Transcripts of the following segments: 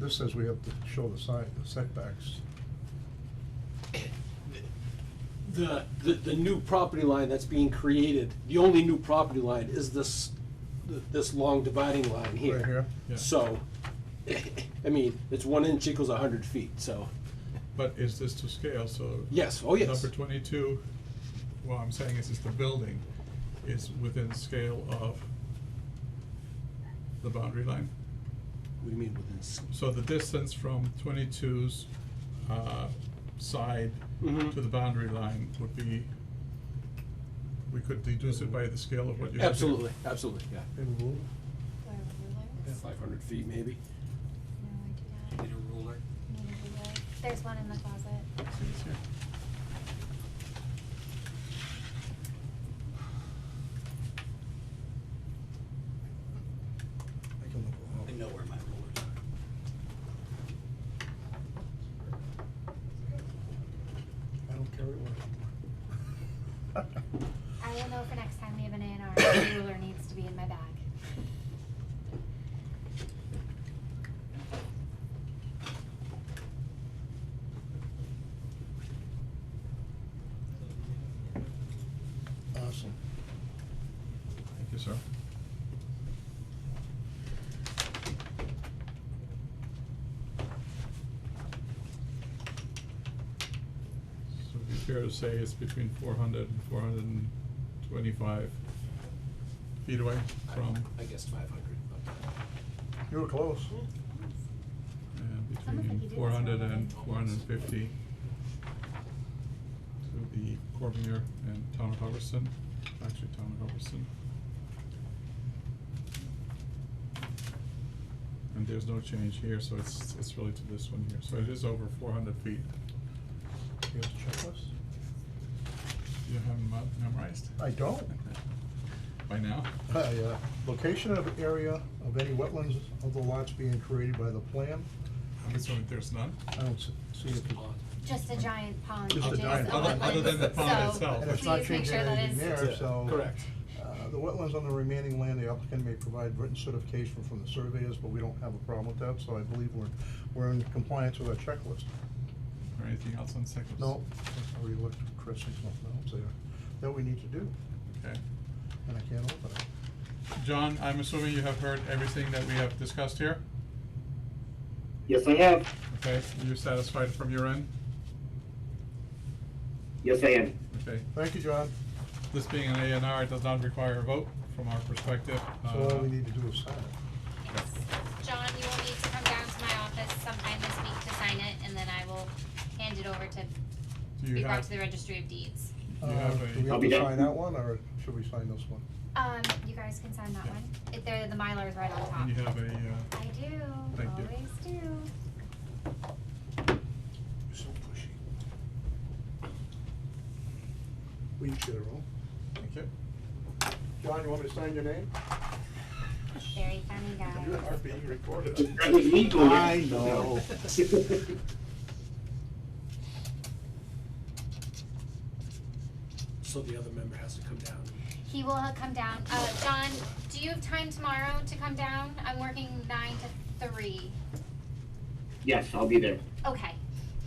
this says we have to show the side, the setbacks. The, the, the new property line that's being created, the only new property line is this, th- this long dividing line here. Right here? Yeah. So, I mean, it's one inch equals a hundred feet, so, But is this to scale, so? yes, oh, yes. Number twenty-two, what I'm saying is, is the building is within scale of the boundary line. What do you mean within? s- So the distance from 22's uh, side Mhm. to the boundary line would be, we could deduce it by the scale of what you're. looking at. Absolutely, absolutely, yeah. In rule? Or rulers? Five hundred feet maybe. No, I do not. Need a ruler? Need a ruler. There's one in the closet. See, it's here. I can look I it know where my rulers are. up. I don't carry one anymore. I will know for next time we have an A and R, the ruler needs to be in my bag. Awesome. Thank you, sir. So it'd be fair to say it's between 400 and 425 feet away I- from, I guess five hundred, You were close. and I don't think Hmm. you between did, four hundred and it's four hundred and fifty to the Cormier and Town of Hubbardston, actually Town of Hubbardston. And there's no change here, so it's, it's really to this one here, so it is over four hundred feet. You have the checklist? You haven't mo- memorized? I don't. By now? Hi, uh, location of area of any wetlands of the lots being created by the plan. I'm assuming there's none? I don't s- see it. Just a giant pond. Just a adjacent giant pond. wetlands. Other than the pond So itself. And it's not please make changing sure that anything is- there, so. Correct. Uh, The wetlands on the remaining land, the applicant may provide written certification from the surveyors, but we don't have a problem with that, so I believe we're, we're in compliance with our checklist. Or anything else on seconds? No, I already looked at Chris and something else there that we need to do, Okay. and I can't open it. John, I'm assuming you have heard everything that we have discussed here? Yes, I have. Okay, you're satisfied from your end? Yes, I am. Okay, Thank you, John. this being an A and R, it does not require a vote from our perspective. So all Uh, we need to do is sign it. Yes. John, you will need to come down to my office sometime this week to sign it, and then I will hand it over to, Do be you brought have, to the registry of deeds. you Uh, have Do we a, have Copy to that. sign that one, or should we sign this one? Um, you guys can sign that Yeah. one. If they're, the Mylar is right on top. you have a, uh, I do, Thank you. always do. You're so pushy. We each get our own. thank you. John, you want me to sign your name? Very funny You guy. are being recorded. That was me doing it. I know. So the other member has to come down. He will ha- come down. Uh, John, do you have time tomorrow to come down? I'm working nine to three. Yes, I'll be there. Okay,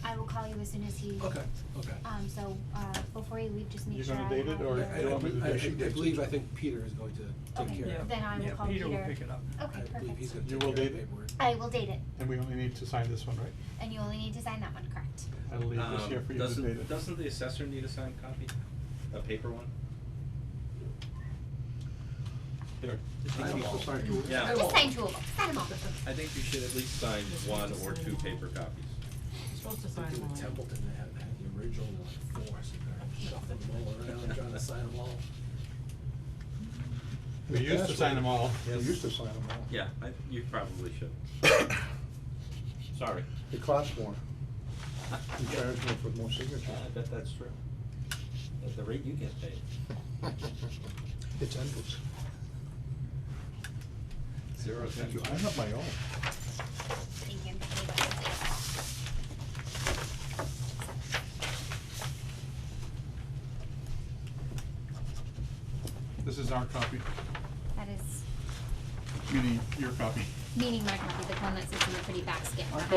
I will call you as soon as he, Okay, okay. um, so, uh, before you leave, just make You're sure I gonna have. date it, or your- I, I, you want me to I- I do it? believe, I think Peter is going to take Okay, care of it. Then I will Yeah, call Peter. Peter will pick it up. Okay, I believe he's perfect. gonna You take care will of date it? the paperwork. I will date it, And we only need to sign this one, right? and you only need to sign that one, correct? I'll leave this Um, here for you to doesn't- date it. Doesn't the assessor need a signed copy? A paper one? There. I also signed yours. Yeah. Just sign two of them, sign them all. I think you should at least sign one or two paper copies. You're supposed to I sign think in one. Templeton, they had, had the original like four, so they're shuffling them all around, trying to sign them all. We used to sign them all. We used to sign them all. Yeah, I, you probably should. Sorry. It costs more. You Yeah, charge me for more I signatures. bet that's true. At the rate you get paid. It's endless. Zero cents. Thank you. I have my own. Thank you. Thank you. This is our copy, That is, meaning your copy. meaning my copy, the one that sits in the pretty back skin.